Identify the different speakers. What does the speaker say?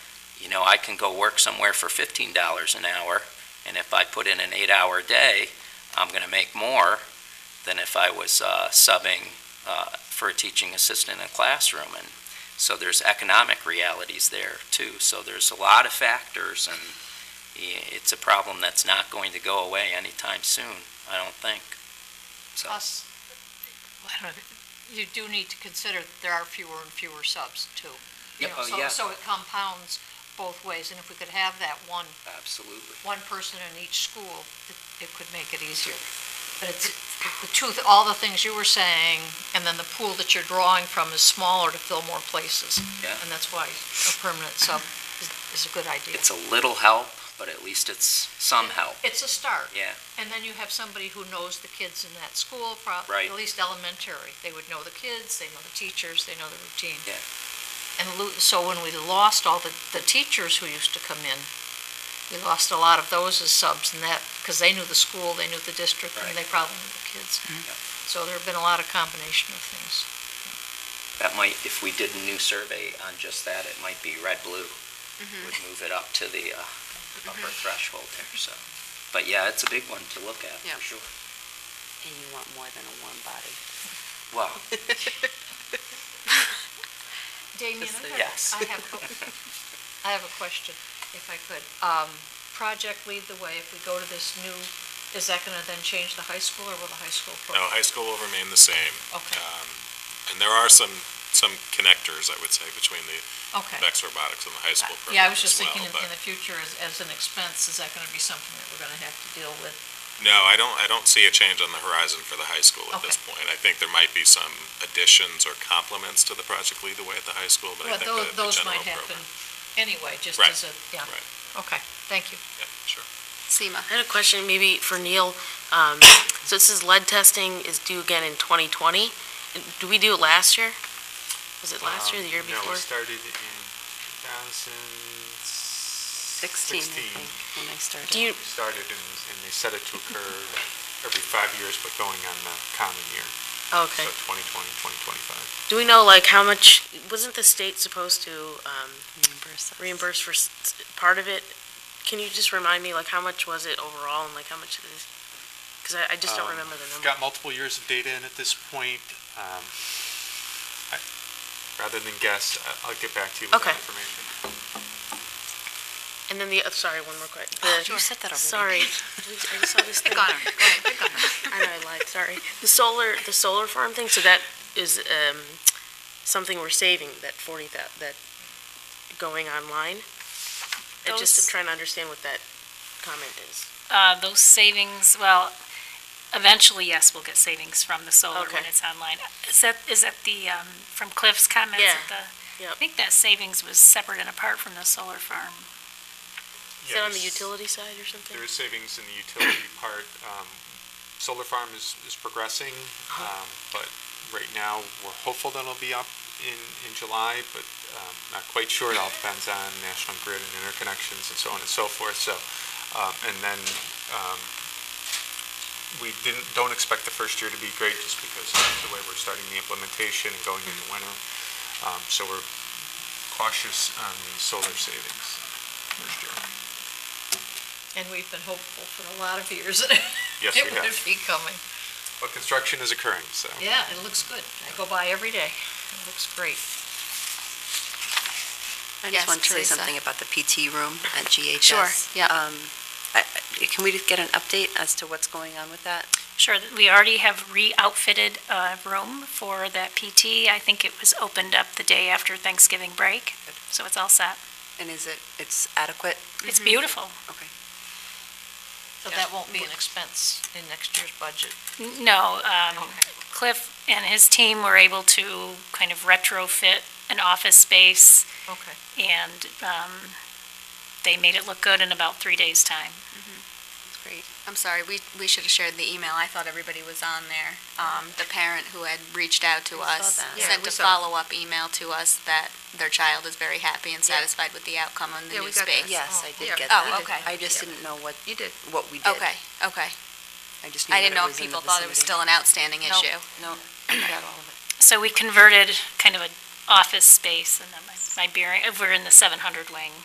Speaker 1: You know, I can go work somewhere for fifteen dollars an hour, and if I put in an eight-hour day, I'm gonna make more than if I was, uh, subbing, uh, for a teaching assistant in a classroom. And so there's economic realities there too. So there's a lot of factors and i- it's a problem that's not going to go away anytime soon, I don't think. So,
Speaker 2: Plus, I don't know, you do need to consider that there are fewer and fewer subs too.
Speaker 1: Yeah,
Speaker 2: You know,
Speaker 1: oh,
Speaker 2: so-
Speaker 1: yeah.
Speaker 2: So it compounds both ways, and if we could have that one,
Speaker 1: absolutely.
Speaker 2: one person in each school, it, it could make it easier. But it's, the two, all the things you were saying, and then the pool that you're drawing from is smaller to fill more places.
Speaker 1: Yeah.
Speaker 2: And that's why a permanent sub is, is a good idea.
Speaker 1: It's a little help, but at least it's some help.
Speaker 2: It's a start.
Speaker 1: Yeah.
Speaker 2: And then you have somebody who knows the kids in that school, prob-
Speaker 1: Right.
Speaker 2: at least elementary. They would know the kids, they know the teachers, they know the routine.
Speaker 1: Yeah.
Speaker 2: And lo- so when we lost all the, the teachers who used to come in, we lost a lot of those as subs and that, because they knew the school, they knew the district, and
Speaker 1: Right. Mm-hmm.
Speaker 2: they probably knew the kids.
Speaker 1: Yep.
Speaker 2: So there have been a lot of combination of things.
Speaker 1: That might, if we did a new survey on just that, it might be red-blue. Would move it up to the uh, upper threshold there, so. But yeah, it's a big one to look at,
Speaker 3: Yeah.
Speaker 1: for sure.
Speaker 3: And you want more than a warm body.
Speaker 1: Wow,
Speaker 2: Damien,
Speaker 3: Just
Speaker 2: I
Speaker 3: the-
Speaker 2: have-
Speaker 1: Yes.
Speaker 2: I have, a- I have a question, if I could. Um, Project Lead the Way, if we go to this new, is that going to then change the high school, or will the high school? pro-
Speaker 4: No, high school will remain the same,
Speaker 2: Okay,
Speaker 4: and there are some, some connectors, I would say, between the
Speaker 2: okay.
Speaker 4: VEX robotics and the high uh, school
Speaker 2: Yeah, I
Speaker 4: program
Speaker 2: was just
Speaker 4: as
Speaker 2: thinking
Speaker 4: well.
Speaker 2: in in
Speaker 4: But,
Speaker 2: the future, as, as an expense, is that going to be something that we're going to have to deal with?
Speaker 4: no, I don't, I don't see a change on the horizon for the high school at
Speaker 2: Okay.
Speaker 4: this point. I think there might be some additions or complements to the Project Lead the Way at the high school, but I
Speaker 2: Well,
Speaker 4: think
Speaker 2: those, those
Speaker 4: the the general
Speaker 2: might happen
Speaker 4: program.
Speaker 2: anyway, just
Speaker 4: Right,
Speaker 2: as a, yeah.
Speaker 4: right.
Speaker 2: Okay, thank you.
Speaker 4: Yeah, sure.
Speaker 3: SEMA.
Speaker 5: I had a question maybe for Neil. Um, So it says lead testing is due again in 2020. Do we do it last year? Was it last year or the year
Speaker 6: Um,
Speaker 5: before?
Speaker 6: No, we started in 2016.
Speaker 3: Sixteen, I think, when I started.
Speaker 5: Do you,
Speaker 6: We started and, and they set it to occur every five years, but going on the common year, so
Speaker 5: okay.
Speaker 6: 2020, 2025.
Speaker 5: Do we know like how much, wasn't the state supposed to um,
Speaker 3: Reimburse us.
Speaker 5: reimburse for s- s- part of it? Can you just remind me like how much was it overall and like how much it is? Because I just don't
Speaker 6: Um,
Speaker 5: remember the
Speaker 6: We've
Speaker 5: number.
Speaker 6: got multiple years of data in at this point. Um, I- Rather than guess, I- I'll get back to you with
Speaker 5: Okay.
Speaker 6: that information.
Speaker 5: And then the, oh, sorry, one more quick.
Speaker 3: Oh,
Speaker 5: The-
Speaker 3: You said that already.
Speaker 5: Sorry. I just saw this thing. I know I lied, sorry. The solar, the solar farm thing, so that is um, something we're saving, that 40, that, that going online? I just am
Speaker 7: Those-
Speaker 5: trying to understand what that comment is.
Speaker 7: Uh, those savings, well, eventually, yes, we'll get savings from the solar when
Speaker 5: Okay.
Speaker 7: it's online. Is that, is that the, um, from Cliff's comments?
Speaker 5: Yeah,
Speaker 7: at the-
Speaker 5: yep.
Speaker 7: I think that savings was separate and apart from the solar farm.
Speaker 5: Is that on the
Speaker 6: Yes.
Speaker 5: utility side or something?
Speaker 6: There is savings in the utility part. Um, Solar farm is, is progressing, um, but right now, we're hopeful that it'll be up in, in July, but um, not quite sure. It all depends on national grid and interconnections and so on and so forth, so, um, and then um, we didn't, don't expect the first year to be great just because of the way we're starting the implementation and going into winter. Um, So we're cautious on the solar savings first year.
Speaker 2: And we've been hopeful for a lot of years.
Speaker 6: Yes, we
Speaker 2: It
Speaker 6: have.
Speaker 2: would be coming.
Speaker 6: But construction is occurring, so.
Speaker 2: Yeah, it looks good. I go by every day. It looks great.
Speaker 3: I
Speaker 8: Yes,
Speaker 3: just want to say
Speaker 8: Lisa.
Speaker 3: something about the PT room at GHS.
Speaker 8: Sure, yeah.
Speaker 3: Um, I- I- Can we just get an update as to what's going on with that?
Speaker 7: Sure, th- we already have re-outfitted a room for that PT. I think it was opened up the day after Thanksgiving break, so it's all set. Mm-hmm.
Speaker 3: And is it, it's adequate?
Speaker 7: It's beautiful.
Speaker 2: So that won't be an expense in next year's budget.
Speaker 7: N- No, um, Cliff and his team were able to kind of retrofit an office space
Speaker 2: Okay.
Speaker 7: and um, they made it look good in about three days' time.
Speaker 8: That's great. I'm sorry, we, we should have shared the email. I thought everybody was on there. Um, the parent who had reached out to us
Speaker 3: that.
Speaker 2: Yeah,
Speaker 8: sent
Speaker 2: we
Speaker 8: a
Speaker 2: saw.
Speaker 8: follow-up email to us that their child is very happy and satisfied with the outcome on the
Speaker 2: Yeah,
Speaker 8: new
Speaker 2: we got that.
Speaker 8: space.
Speaker 3: Yes, I
Speaker 2: Yeah.
Speaker 3: did get
Speaker 8: Oh,
Speaker 3: that.
Speaker 8: okay.
Speaker 3: I just didn't know what,
Speaker 2: You did.
Speaker 3: what we did.
Speaker 8: Okay, okay.
Speaker 3: I just knew
Speaker 8: I
Speaker 3: that
Speaker 8: didn't know
Speaker 3: it
Speaker 8: if
Speaker 3: was in the
Speaker 8: people thought it was
Speaker 3: vicinity.
Speaker 8: still an outstanding
Speaker 3: No.
Speaker 8: issue.
Speaker 3: No, I got all of it.
Speaker 7: So we converted kind of an office space, and then my, my bearing, we're in the 700 wing,